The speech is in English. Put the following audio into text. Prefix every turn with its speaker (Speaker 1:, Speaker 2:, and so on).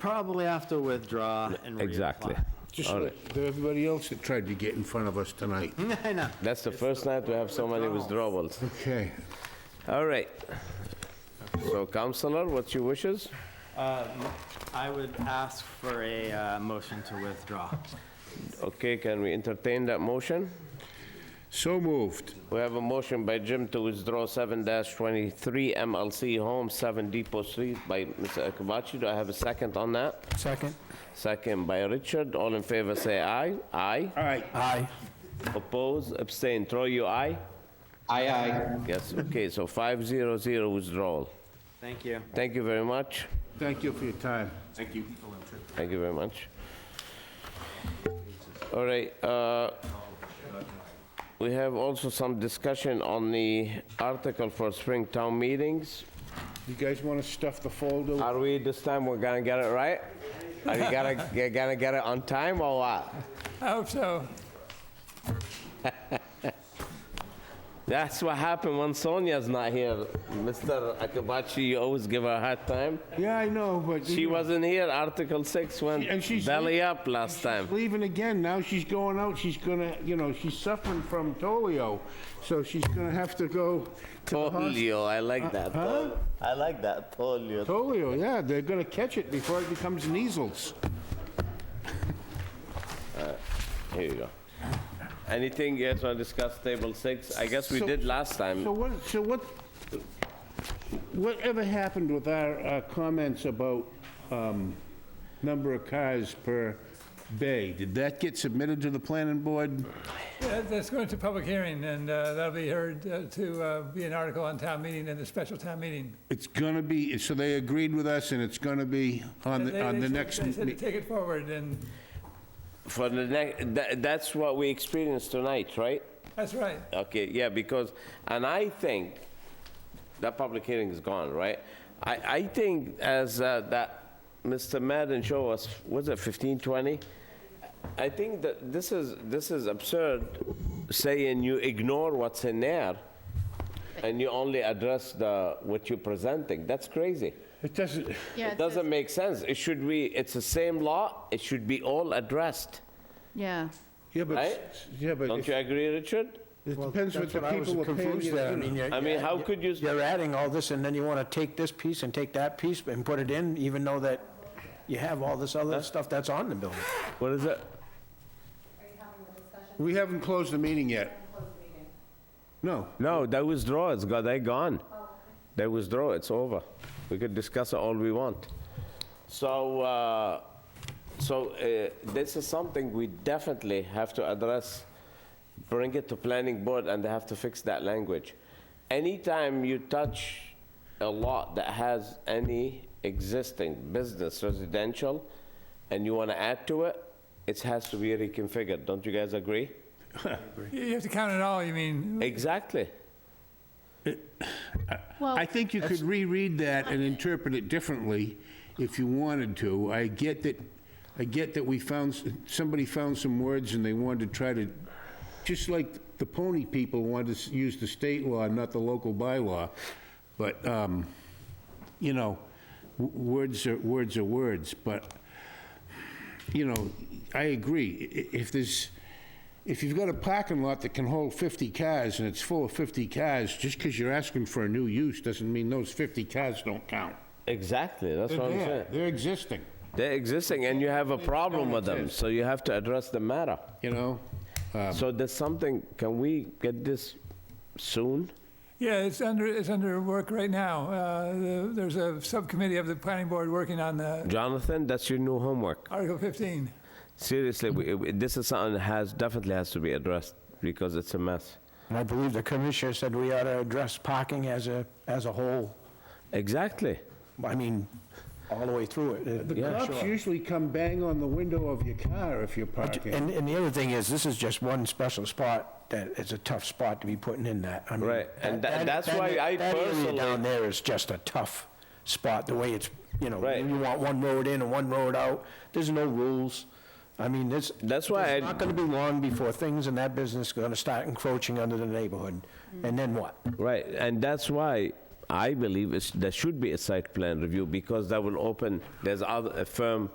Speaker 1: probably have to withdraw and reapply.
Speaker 2: Exactly.
Speaker 3: Just like everybody else that tried to get in front of us tonight.
Speaker 1: I know.
Speaker 2: That's the first night we have so many withdrawals.
Speaker 3: Okay.
Speaker 2: All right. So Counselor, what's your wishes?
Speaker 1: Uh, I would ask for a uh, motion to withdraw.
Speaker 2: Okay, can we entertain that motion?
Speaker 3: So moved.
Speaker 2: We have a motion by Jim to withdraw 7-23 MLC Home, 7 Depot Street by Mr. Akabachi. Do I have a second on that?
Speaker 4: Second.
Speaker 2: Second by Richard. All in favor, say aye. Aye.
Speaker 3: All right.
Speaker 4: Aye.
Speaker 2: Oppose, abstain. Throw you aye?
Speaker 5: Aye, aye.
Speaker 2: Yes, okay, so 500 withdrawal.
Speaker 1: Thank you.
Speaker 2: Thank you very much.
Speaker 3: Thank you for your time.
Speaker 2: Thank you very much. All right, uh, we have also some discussion on the article for spring town meetings.
Speaker 3: You guys want to stuff the folder?
Speaker 2: Are we, this time, we're gonna get it right? Are you gonna, you gonna get it on time or what?
Speaker 4: I hope so.
Speaker 2: That's what happened when Sonia's not here. Mr. Akabachi, you always give her a hard time.
Speaker 3: Yeah, I know, but
Speaker 2: She wasn't here, Article 6
Speaker 3: And
Speaker 2: went
Speaker 3: she's-
Speaker 2: belly up last time.
Speaker 3: leaving again. Now she's going out. She's gonna, you know, she's suffering from polio, so she's gonna have to go to the hospital.
Speaker 2: Polio, I like that.
Speaker 3: Uh, huh?
Speaker 2: I like that, polio.
Speaker 3: Polio, yeah, they're gonna catch it before it becomes measles.
Speaker 2: Here you go. Anything you guys want to discuss, table six? I guess we
Speaker 3: So-
Speaker 2: did last
Speaker 3: So
Speaker 2: time.
Speaker 3: what, so what, whatever happened with our uh, comments about um, number of cars per bay? Did that get submitted to the planning board?
Speaker 6: Yeah, That's going to public hearing, and uh, that'll be heard uh, to uh, be an article on town meeting and the special town meeting.
Speaker 3: It's gonna be, so they agreed with us, and it's gonna be on
Speaker 6: They-
Speaker 3: the, on the
Speaker 6: they said-
Speaker 3: next,
Speaker 6: They said to
Speaker 3: me-
Speaker 6: take it forward, and
Speaker 2: For the next, tha- that's what we experienced tonight, right?
Speaker 6: that's right.
Speaker 2: Okay, yeah, because, and I think, that public hearing is gone, right? I, I think as uh, that Mr. Madden showed us, was it 15, 20? I think that this is, this is absurd, saying you ignore what's in there, and you only address the, what you're presenting. That's crazy.
Speaker 3: it doesn't,
Speaker 7: Yeah,
Speaker 2: It doesn't make sense. It should be, it's the same law, it should be all addressed,
Speaker 7: Yeah.
Speaker 3: yeah, but,
Speaker 2: Right?
Speaker 3: s- yeah, but
Speaker 2: don't you
Speaker 3: it
Speaker 2: agree, Richard?
Speaker 3: it depends what
Speaker 4: That's
Speaker 3: the
Speaker 4: what I was
Speaker 3: people are paying.
Speaker 4: confused
Speaker 3: you to
Speaker 4: at. I
Speaker 3: do.
Speaker 4: mean, you're-
Speaker 2: I mean, how could you-
Speaker 4: You're adding all this, and then you want to take this piece and take that piece and put it in, even though that you have all this other stuff that's on the building.
Speaker 2: What is it?
Speaker 3: We haven't closed the meeting yet. No,
Speaker 2: No, they withdraw, it's gone, they gone. They withdraw, it's over. We could discuss it all we want. So, uh, so uh, this is something we definitely have to address, bring it to planning board, and they have to fix that language. Anytime you touch a lot that has any existing business, residential, and you want to add to it, it has to be reconfigured, don't you guys agree?
Speaker 6: You you have to count it all, you mean,
Speaker 2: Exactly.
Speaker 7: Well,
Speaker 3: I think you could reread that and interpret it differently if you wanted to. I get that, I get that we found, s- somebody found some words and they wanted to try to, just like the pony people wanted to s- use the state law, not the local bylaw. But, um, you know, w- words are, words are words, but, you know, I agree. I- If there's, if you've got a parking lot that can hold 50 cars and it's full of 50 cars, just because you're asking for a new use doesn't mean those 50 cars don't count.
Speaker 2: Exactly, that's what I'm saying.
Speaker 3: They're they're existing,
Speaker 2: They're existing, and you have a problem with them, so you have to address the matter.
Speaker 3: you know?
Speaker 2: So there's something, can we get this soon?
Speaker 6: yeah, it's under, it's under work right now. Uh, the- There's a subcommittee of the planning board working on the
Speaker 2: Jonathan, that's your new homework.
Speaker 6: Article 15.
Speaker 2: Seriously, we- we- this is something that has, definitely has to be addressed, because it's a mess.
Speaker 4: And I believe the commissioner said we ought to address parking as a, as a whole,
Speaker 2: Exactly.
Speaker 4: I mean, all the way through it.
Speaker 3: The cops usually come bang on the window of your car if you're parking.
Speaker 4: And, and the other thing is, this is just one special spot that it's a tough spot to be putting in that. I mean,
Speaker 2: Right, and
Speaker 4: that-
Speaker 2: tha- that's
Speaker 4: that-
Speaker 2: why I
Speaker 4: That area
Speaker 2: personally-
Speaker 4: down there is just a tough spot, the way it's, you know,
Speaker 2: Right.
Speaker 4: you want one road in and one road out. There's no rules. I mean, this.
Speaker 2: That's why
Speaker 4: It's
Speaker 2: I-
Speaker 4: not gonna be long before things in that business are gonna start encroaching under the neighborhood. And then what?
Speaker 2: Right, and that's why I believe it's, there should be a site plan review because that will open, there's other, a firm